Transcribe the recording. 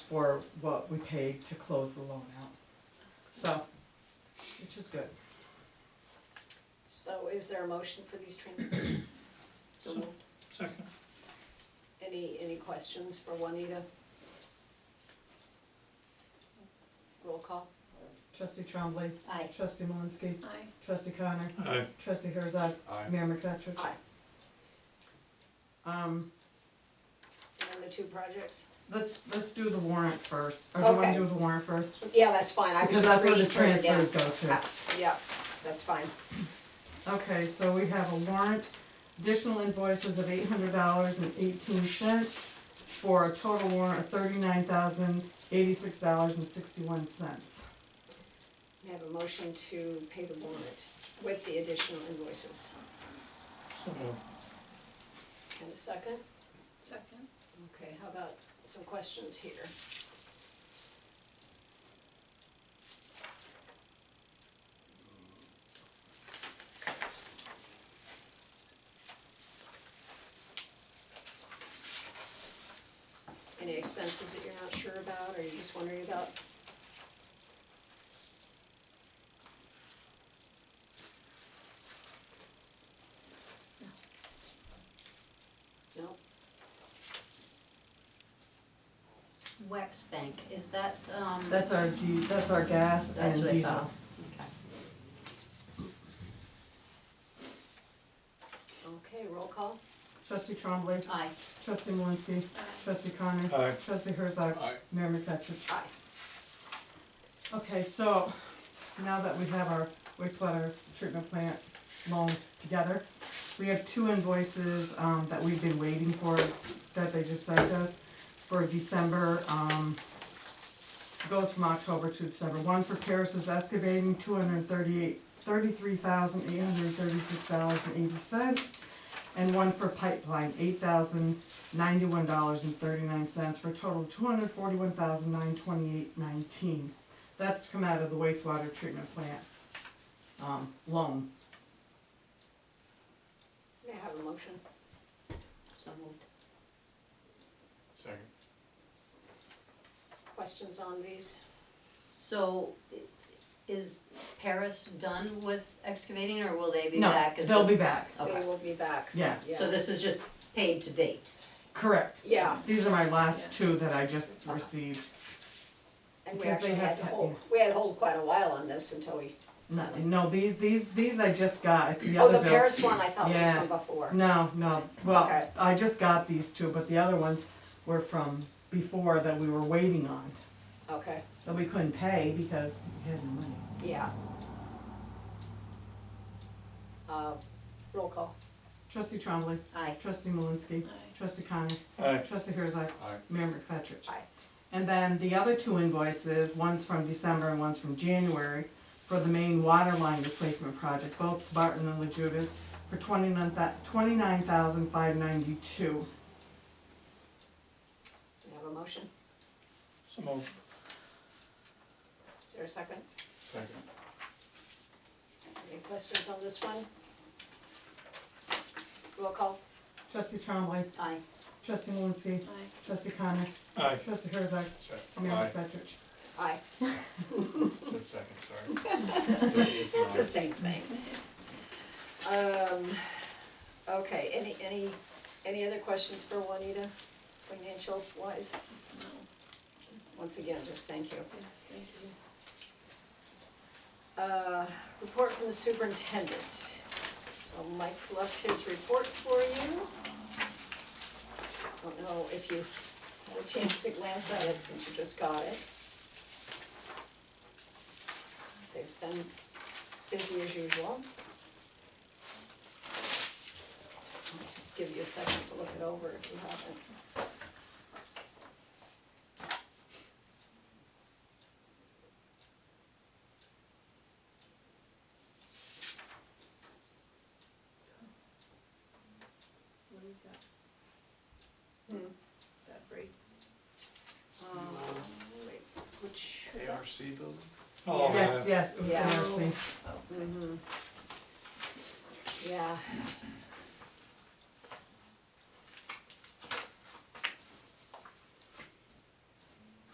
for what we paid to close the loan out. So, which is good. So is there a motion for these transfers? So moved. Second. Any, any questions for Juanita? Roll call. Trustee Trombley, Aye. trustee Malinsky, Aye. trustee Connor, Aye. trustee Herzog, Aye. Mayor McFetrich. Aye. Um, And then the two projects? let's, let's do the warrant first. Or do you wanna Okay. do the warrant first? Yeah, that's fine, I was Because just that's where the reading through it again. transfers go to. Ah, Yeah, that's fine. Okay, so we have a warrant, additional invoices of eight hundred dollars and eighteen cents for a total warrant of thirty-nine thousand eighty-six dollars and sixty-one cents. We have a motion to pay the warrant with the additional invoices. So moved. And a second? Second. Okay, how about some questions here? Any expenses that you're not sure about, or you're just wondering about? No? Wex Bank, is that, um? That's our G, that's our gas That's and what I saw. diesel. Okay. Okay, roll call. Trustee Trombley, Aye. trustee Malinsky, trustee Connor, Aye. trustee Herzog, Aye. Mayor McFetrich. Aye. Okay, so now that we have our wastewater treatment plant loan together, we have two invoices, um, that we've been waiting for, that they just sent us for December, um, goes from October to December. One for Paris is excavating, two hundred and thirty-eight, thirty-three thousand, eight hundred and thirty-six dollars and eighty cents. And one for pipeline, eight thousand, ninety-one dollars and thirty-nine cents, for a total of two hundred and forty-one thousand, nine twenty-eight, nineteen. That's to come out of the wastewater treatment plant, um, loan. May I have a motion? So moved. Second. Questions on these? So i- is Paris done with excavating or will they be No, back? as They'll the- be back, They Okay, will be back. yeah, Yeah. so this is just paid to date? correct. Yeah, These are my last Yeah. two that I just Okay. received, and we Because actually they have had to to- hold, we had to hold quite a while on this until we, no, no, these, these, these I just got, it's the oh, other the bills. Paris one I thought was Yeah. from before. No, no, well, Okay. I just got these two, but the other ones were from before that we were waiting on, Okay, that we couldn't pay because we had no money. yeah. Uh, roll call. Trustee Trombley, Aye. trustee Malinsky, trustee Connor, Aye. trustee Herzog, Aye. Mayor McFetrich. Aye. And then the other two invoices, one's from December and one's from January, for the main water line replacement project, both Barton and La Judas, for twenty-nine twenty-nine thousand five ninety-two. Do we have a motion? So moved. Is there a second? Second. Any questions on this one? Roll call. Trustee Trombley, Aye. trustee Malinsky, Aye. trustee Connor, Aye. trustee Herzog, Second. Mayor Aye. McFetrich. Aye. Said second, sorry. It's It's the mine. same thing. Um, okay, any, any, any other questions for Juanita, financial wise? No, Once again, just thank you. yes, thank you. Uh, report from the superintendent. So Mike left his report for you. Don't know if you had a chance to glance at it since you just got it. They've been busy as usual. I'll Just give you a second to look it over if you haven't. What is that, Hmm. that break? Uh, wait, Which, ARC building? Oh, Yes, yeah. Oh, Hmm. yes, Yeah. Darcy. Mhm. Mm-hmm. Yeah,